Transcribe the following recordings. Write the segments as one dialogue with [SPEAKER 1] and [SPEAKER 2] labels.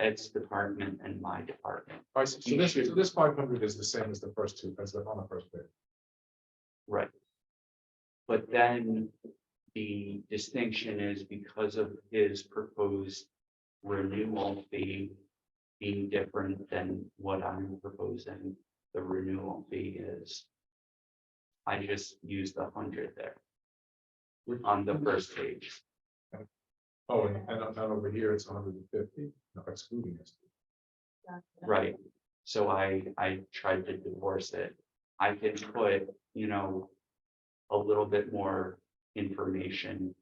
[SPEAKER 1] Ed's department and my department,
[SPEAKER 2] All right, so so this, so this five hundred is the same as the first two, as the, on the first page.
[SPEAKER 1] right? But then the distinction is because of his proposed renewal fee being different than what I'm proposing, the renewal fee is. I just used the hundred there on the first page.
[SPEAKER 2] Oh, and, and up- down over here, it's hundred and fifty, excluding this.
[SPEAKER 1] Right, so I, I tried to divorce it. I can put, you know, a little bit more information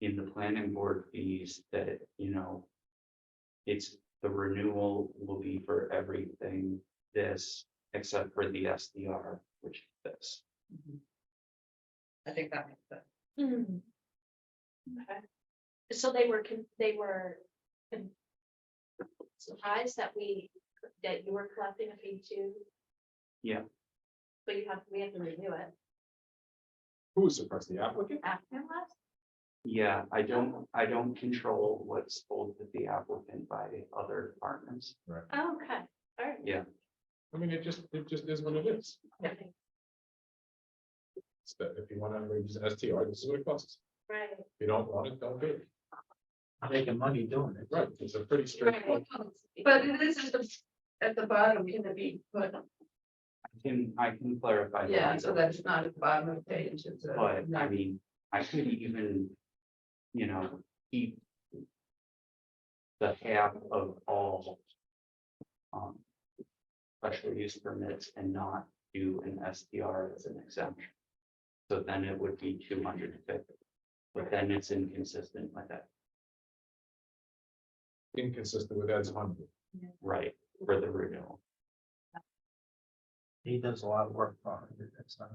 [SPEAKER 1] in the planning board fees that, you know, it's, the renewal will be for everything this, except for the SDR, which is this.
[SPEAKER 3] I think that makes sense.
[SPEAKER 4] Hmm. Okay. So they were, con- they were con- surprised that we, that you were collecting a fee too?
[SPEAKER 1] Yeah.
[SPEAKER 4] But you have, we have to review it.
[SPEAKER 2] Who was surprised, the applicant?
[SPEAKER 4] after last?
[SPEAKER 1] Yeah, I don't, I don't control what's told to the applicant by other departments.
[SPEAKER 4] Oh, Okay, all right.
[SPEAKER 1] Yeah.
[SPEAKER 2] I mean, it just, it just is what it is.
[SPEAKER 4] Okay,
[SPEAKER 2] It's that if you wanna use an STR, this is what it costs.
[SPEAKER 4] Right.
[SPEAKER 2] If you don't want it, don't do it.
[SPEAKER 5] I'm making money doing it.
[SPEAKER 2] Right, it's a pretty straightforward.
[SPEAKER 3] But it is at the, at the bottom, can it be, but,
[SPEAKER 1] I can, I can clarify. that.
[SPEAKER 3] yeah, so that's not at the bottom of the page, it's a.
[SPEAKER 1] But I mean, I could even, you know, keep. The half of all. Um. Special use permits and not do an SDR as an exemption. So then it would be two hundred and fifty. But then it's inconsistent with that,
[SPEAKER 2] inconsistent with Ed's hundred.
[SPEAKER 1] right, for the renewal.
[SPEAKER 5] He does a lot of work on it. That's not.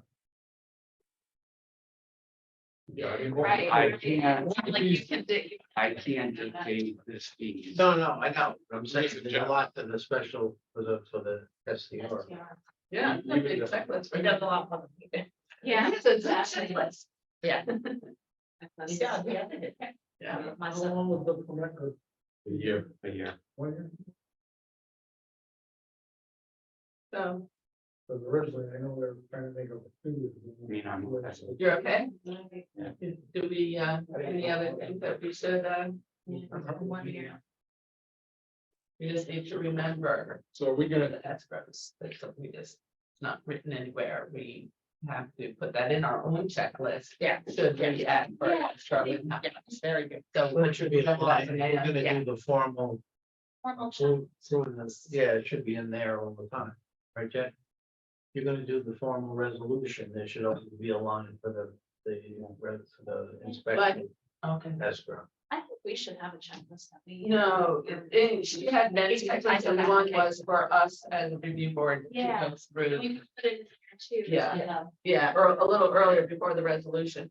[SPEAKER 2] Yeah, I mean.
[SPEAKER 4] Right.
[SPEAKER 1] I can't,
[SPEAKER 3] Like you can do,
[SPEAKER 1] I can't dictate this fee.
[SPEAKER 5] No, no, I know. I'm saying
[SPEAKER 2] Ladies and
[SPEAKER 5] there's a lot to the special for the, for the SDR.
[SPEAKER 4] SDR.
[SPEAKER 3] yeah, it's a big checklist, we got a lot of. them.
[SPEAKER 4] Yeah.
[SPEAKER 3] It's a checklist. Yeah.
[SPEAKER 4] Yeah, the other day.
[SPEAKER 3] Yeah.
[SPEAKER 4] Myself.
[SPEAKER 2] The year,
[SPEAKER 1] A year,
[SPEAKER 3] So,
[SPEAKER 5] But originally, I know they're trying to make a two.
[SPEAKER 1] I mean, I'm.
[SPEAKER 3] you're okay,
[SPEAKER 4] Okay.
[SPEAKER 3] do we, uh, any other things that we should, uh, one
[SPEAKER 1] Yeah.
[SPEAKER 3] year? We just need to remember
[SPEAKER 2] so are we
[SPEAKER 3] Go to
[SPEAKER 2] gonna,
[SPEAKER 3] the escrows, that's something we just, it's not written anywhere, we have to put that in our own checklist. Yeah. Should we add for
[SPEAKER 4] Yeah.
[SPEAKER 3] escrow? Very good. So.
[SPEAKER 5] Well, it should be,
[SPEAKER 3] Yeah.
[SPEAKER 5] applied, and we're
[SPEAKER 3] Yeah.
[SPEAKER 5] gonna do the formal,
[SPEAKER 4] Formal check.
[SPEAKER 5] through, through this, yeah, it should be in there all the time, right, Jack? You're gonna do the formal resolution, there should also be a line for the, the, for the inspection
[SPEAKER 3] Okay.
[SPEAKER 5] escrow.
[SPEAKER 4] I think we should have a checklist. that we-
[SPEAKER 3] No, and she had many checklists, and one was for us as a review board to
[SPEAKER 4] Yeah.
[SPEAKER 3] go through,
[SPEAKER 4] We put it in there too.
[SPEAKER 3] Yeah.
[SPEAKER 4] so-
[SPEAKER 3] yeah, or a little earlier before the resolution.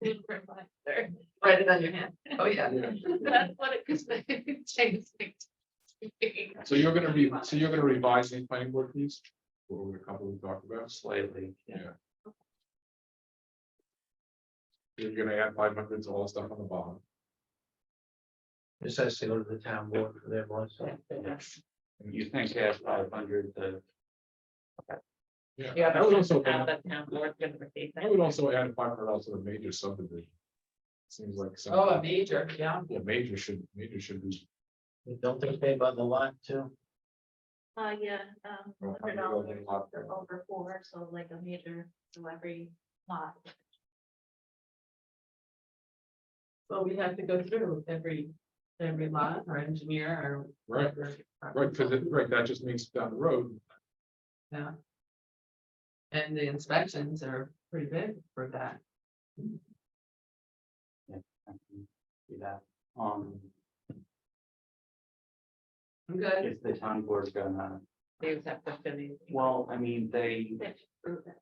[SPEAKER 3] Write it on your hand, oh, yeah.
[SPEAKER 4] That's what it, because they changed it.
[SPEAKER 2] so you're gonna re, so you're gonna revise these planning board fees? What were a couple we talked about?
[SPEAKER 1] Slightly,
[SPEAKER 2] You're gonna add five hundred to all the stuff on the bottom.
[SPEAKER 5] This has to go to the town board for their blessing.
[SPEAKER 1] you think that's five hundred, the
[SPEAKER 2] Yeah. I would also, add- I
[SPEAKER 3] Oh,
[SPEAKER 2] would also add five hundred dollars to the major subdivision. Seems like. some-
[SPEAKER 3] Oh, a major, yeah.
[SPEAKER 2] Yeah, major should, major should be.
[SPEAKER 5] Don't they pay by the lot too?
[SPEAKER 4] Uh, yeah, um,
[SPEAKER 2] Oh, hundred
[SPEAKER 4] hundred
[SPEAKER 2] dollars
[SPEAKER 4] dollars
[SPEAKER 2] lot.
[SPEAKER 4] for over four, so like a major, so every lot.
[SPEAKER 3] So we have to go through every, every lot or engineer or.
[SPEAKER 2] Right, right, because it, right, that just means down the road,
[SPEAKER 3] Yeah. And the inspections are pretty big for that.
[SPEAKER 1] I can Do that, um,
[SPEAKER 3] I'm good.
[SPEAKER 1] is the town board gonna,
[SPEAKER 3] They just have to finish.
[SPEAKER 1] well, I mean, they,
[SPEAKER 4] They have to prove it.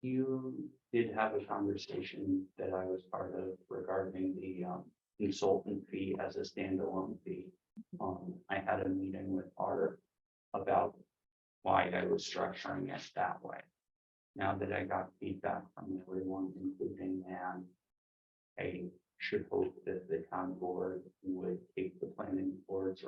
[SPEAKER 1] you did have a conversation that I was part of regarding the um consultant fee as a standalone fee. Um, I had a meeting with Art about why I was structuring it that way. Now that I got feedback from everyone, including Ann, I should hope that the town board would take the planning board's